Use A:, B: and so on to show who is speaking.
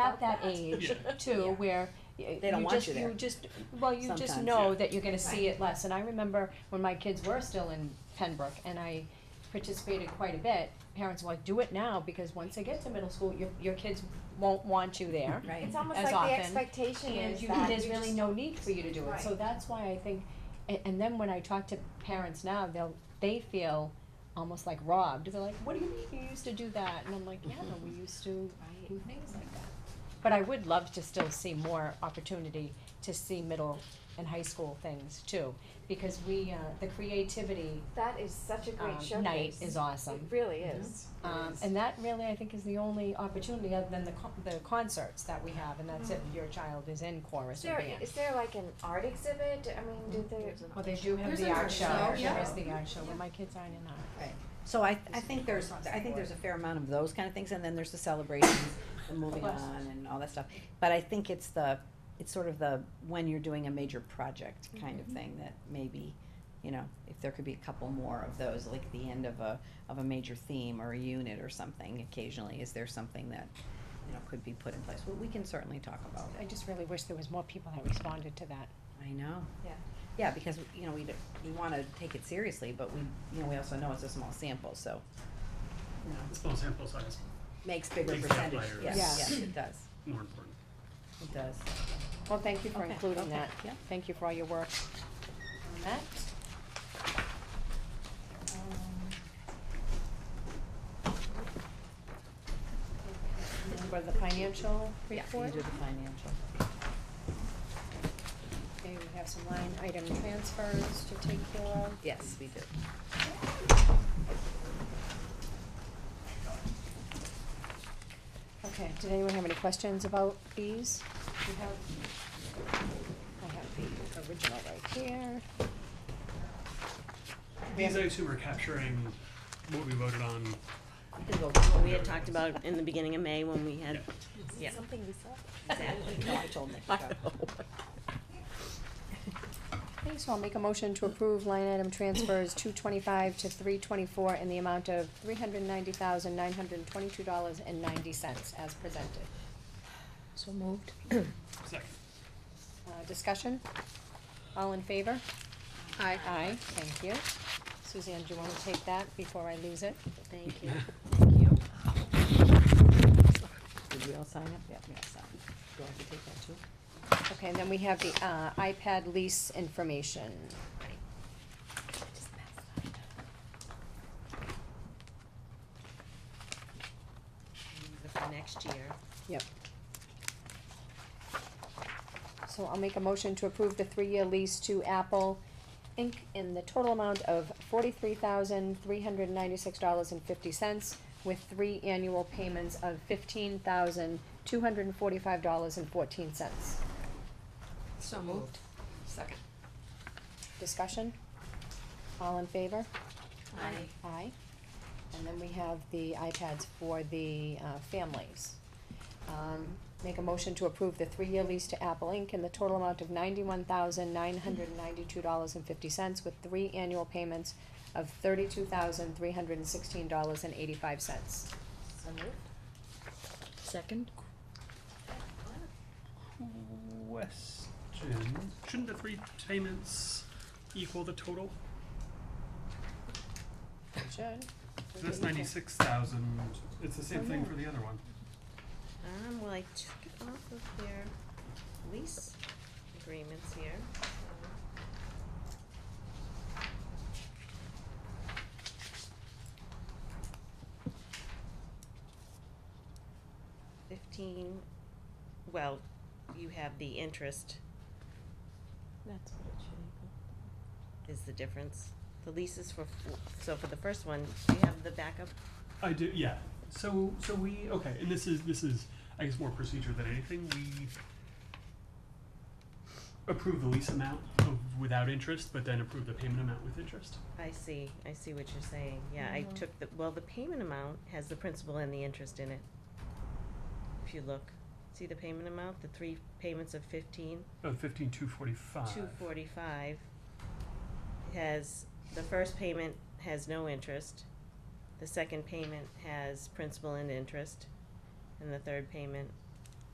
A: at that age
B: Yeah.
A: too, where y-
C: They don't
A: you
C: want
A: just,
C: you there
A: you just, well, you just
C: sometimes.
A: know that you're gonna see it less, and I remember when my kids were still in Pembroke, and I participated quite a bit, parents were like, do it now, because once they get to middle school, your, your kids won't want you there.
C: Right.
D: It's almost
A: as
D: like
A: often,
D: the expectation
A: And
D: is
A: you,
D: that
A: there's
D: you
A: really
D: just-
A: no need for you to do it, so
D: Right.
A: that's why I think, and, and then when I talk to parents now, they'll, they feel almost like robbed, they're like, what do you mean you used to do that? And I'm like, yeah, no,
C: Mm-hmm.
A: we used to do things like that. But I would love to still see more opportunity to see middle and high school things too, because we, uh, the creativity,
D: That is such a great
A: um,
D: showcase.
A: night is
D: It
A: awesome.
D: really is. It
A: Um,
D: is.
A: and that really, I think, is the only opportunity other than the co- the concerts that we have, and that's
E: Mm-hmm.
A: if your child is in
D: Is
A: chorus or
D: there,
A: band.
D: is there like an art exhibit? I mean,
A: Mm-hmm.
D: do they?
A: Well, they do have
E: There's
A: the
E: an
A: art
E: art
A: show,
E: show,
A: there
E: yeah.
A: is the art show, but my kids aren't in art.
C: So I, I think there's, I think there's a fair amount of those kind of things, and then there's the celebrations, the moving
A: Plus.
C: on and all that stuff. But I think it's the, it's sort of the, when you're doing a major project kind of thing that maybe, you know, if there could be a couple more of those, like the end of a, of a major theme or a unit or something occasionally, is there something that, you know, could be put in place? Well, we can certainly talk about
A: I
C: it.
A: just really wish there was more people that responded to that.
C: I know.
D: Yeah.
C: Yeah, because, you know, we, d- we wanna take it seriously, but we, you know, we also know it's a small sample, so, you know.
B: Small sample size,
C: makes bigger
B: Big
C: percentage,
B: outliers.
C: yes,
A: Yeah.
C: yes, it does,
B: more important.
C: it does.
A: Well, thank you for
C: Okay,
A: including
C: okay,
A: that.
C: yeah.
A: Thank you for all your work on that. Um, For the financial report,
C: These are the financial.
A: okay, we have some line item transfers to take care of.
C: Yes, we do.
A: Okay, did anyone have any questions about these? You have, I have the original right here. We have-
B: These I assume are capturing what we voted on.
F: We had talked about it in the beginning of May when we had, yeah.
D: Something we saw.
F: exactly.
C: No, I told Nick.
F: I
C: so.
F: know.
A: Okay, so I'll make a motion to approve line item transfers two twenty-five to three twenty-four in the amount of three hundred ninety thousand, nine hundred twenty-two dollars and ninety cents as presented. So moved.
B: Second.
A: Uh, discussion? All in favor? Aye. Aye, thank you. Suzanne, do you wanna take that before I lose it?
F: Thank you, thank you.
C: Did we all sign up? Yeah, we all signed. Do I have to take that too?
A: Okay, and then we have the, uh, iPad lease information.
F: For next year.
A: Yep. So I'll make a motion to approve the three-year lease to Apple Inc. in the total amount of forty-three thousand, three hundred ninety-six dollars and fifty cents with three annual payments of fifteen thousand, two hundred and forty-five dollars and fourteen cents.
E: So moved. Second.
A: Discussion? All in favor?
E: Aye.
A: Aye. And then we have the iPads for the uh, families. Um, Make a motion to approve the three-year lease to Apple Inc. in the total amount of ninety-one thousand nine hundred ninety-two dollars and fifty cents with three annual payments of thirty-two thousand three hundred and sixteen dollars and eighty-five cents.
D: So moved.
F: Second?
B: Question, shouldn't the three payments equal the total?
A: Should.
B: That's ninety-six thousand, it's the same
F: Oh,
B: thing for the other one.
F: Um, well, I took it off of their lease agreements here. Fifteen, well, you have the interest
C: That's what it should
F: is the difference. The lease is for, f- so for the first one, do you have the backup?
B: I do, yeah. So, so we, okay, and this is, this is, I guess, more procedure than anything, we approve the lease amount of, without interest, but then approve the payment amount with interest.
F: I see, I see what you're saying. Yeah, I took the, well, the payment amount has the principal and the interest in it. If you look, see the payment amount, the three payments of fifteen,
B: Oh, fifteen two forty-five.
F: two forty-five. Has, the first payment has no interest, the second payment has principal and interest, and the third payment